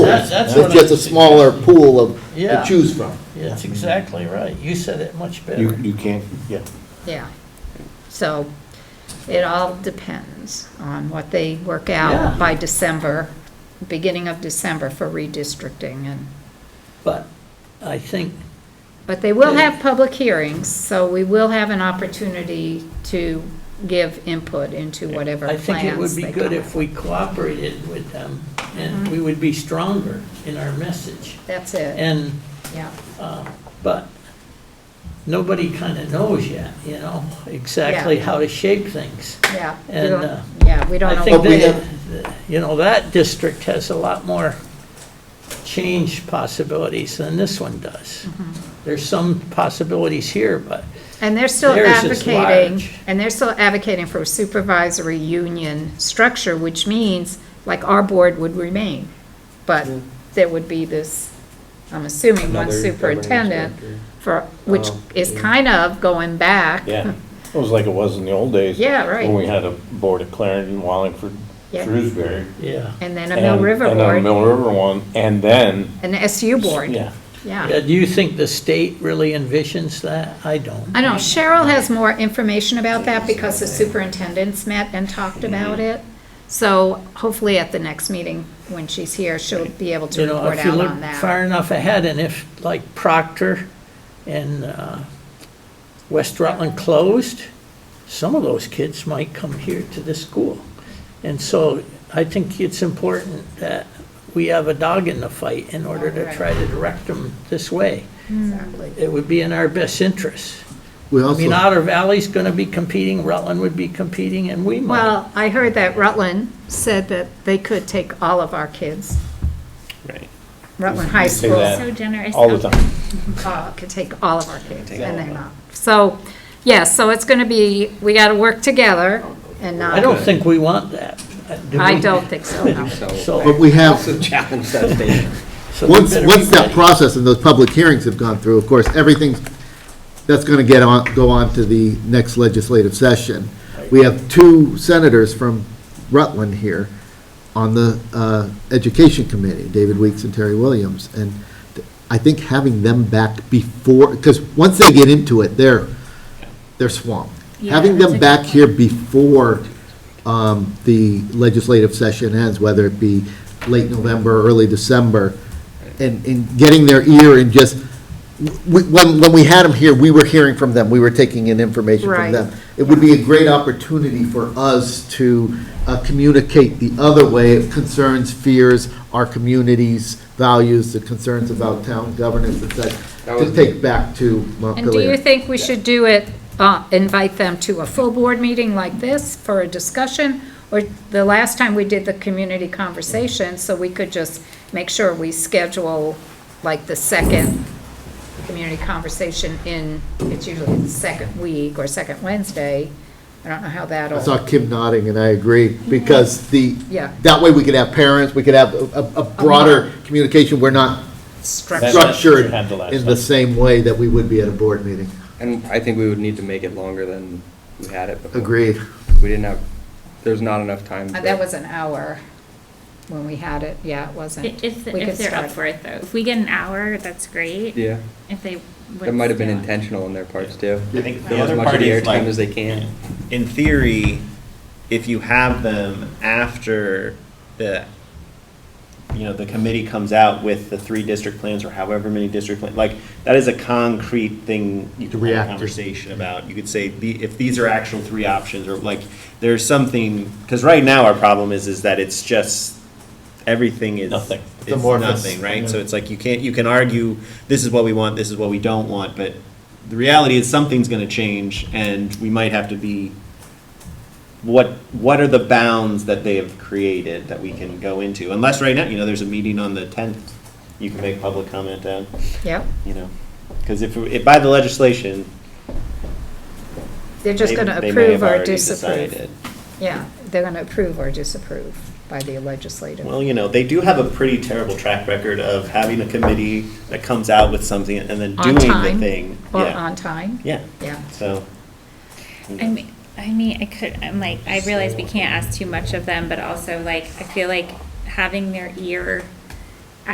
that's- others. that's It's what just I'm a smaller pool of, to Yeah. choose from. That's exactly right. You said it much You, better. you can't, yeah. Yeah. So it all depends on what they work Yeah. out by December, beginning of December for redistricting and, But I think, but they will have public hearings, so we will have an opportunity to give input into whatever I plans think it would be they good come Mm-hmm. if we cooperated with them, and we would be stronger in our message. up. That's it, And, yeah. uh, but nobody kind of knows yet, you know, exactly Yeah. how to shape things. Yeah, we And, don't- uh, yeah, we don't I know. think what- we that, you know, that district has a lot more change possibilities than this one does. Mm-hmm. There's some possibilities here, but And they're still Theirs is advocating, large. and they're still advocating for a supervisory union structure, which means, like, our board would remain. But Hmm. there would be this, I'm assuming, one Another governance superintendent director. for, which Oh, is yeah. kind of going back. Yeah, it was like it was in the old days. Yeah, right. When we had a board at Clarendon, Wallingford, Yeah. Shrewsbury. yeah. And then a Mill and- River And then a board, Mill River one, and then. an SU board, Yeah, yeah. Yeah, Do you think the state really envisions that? I don't. I know Cheryl has more information about that because the superintendents met and talked Mm-hmm. about it. So hopefully at the next meeting, when she's here, she'll be able to You know, report if you out look on that. far enough ahead, and if, like Proctor and uh, West Rutland closed, some of those kids might come here to the school. And so I think it's important that we have a dog in the fight in order to try to direct them this way. Exactly. It would be in our best interest. We I mean, also, Otter Valley's going to be competing, Rutland would be competing, and we might. Well, I heard that Rutland said that they could take all of our kids. right. Rutland High Say School that So generous. All the time. uh, could take all of our kids, and they're not. So, yeah, so it's going to be, we got to work together and not. I don't think we want that. do I we? don't think so, no. So, but we have, Also challenge that statement. so we once, better once be that ready. process and those public hearings have gone through, of course, everything's, that's gonna get on, go on to the next legislative session. We have two senators from Rutland here on the, uh, Education Committee, David Weeks and Terry Williams. And I think having them back before, because once they get into it, they're, they're swamped. Yeah, Having that's a them good back point. here before um, the legislative session ends, whether it be late November, early December, and, and getting their ear and just, we- when, when we had them here, we were hearing from them, we were taking in information from Right. them. It would be a great opportunity for us to uh, communicate the other way, concerns, fears, our community's values, the concerns about town governance, et That cetera, to was- take back to And do you Montpelier. think we should do it, uh, invite them to a full board meeting like this for a discussion? Or the last time we did the community conversation, so we could just make sure we schedule like the second community conversation in, it's usually the second week or second Wednesday. I don't know how I that'll, saw Kim nodding, and I agree, because the, yeah, That way, we could have parents, we could have a- a, a broader communication, we're not That's structure. what we structured had the last in the time. same way that we would be at a board meeting. And I think we would need to make it longer than we had it before. Agreed. We didn't have, there's not enough time. Uh, for- That was an hour when we had it, yeah, it wasn't. If, if We could they're start. up for it though. If we get an hour, that's great. Yeah, If they. that might have been intentional on their parts too. I think Give the as other much of part the is airtime like. as they can. in theory, if you have them after the, you know, the committee comes out with the three district plans or however many district plans, like, that is a concrete thing you To can have react a to. conversation about. You could say, the- if these are actual three options, or like, there's something, because right now our problem is, is that it's just, everything is. Nothing. It's amorphous. nothing, right? So it's like, you can't, you can argue, this is what we want, this is what we don't want, but the reality is something's gonna change, and we might have to be what what are the bounds that they have created that we can go into? Unless right now, you know, there's a meeting on the tenth, you can make public comment on, Yep, you know, because if, if by the legislation, they're they just gonna they may approve have or already disapprove. decided. Yeah, they're going to approve or disapprove by the legislative. Well, you know, they do have a pretty terrible track record of having a committee that comes out with something and then On doing the time, thing. Or Yeah. on time, Yeah, yeah. so. you know. I mean, I mean, I could, I'm like, I realize we can't ask too much of them, but also like, I feel like having their ear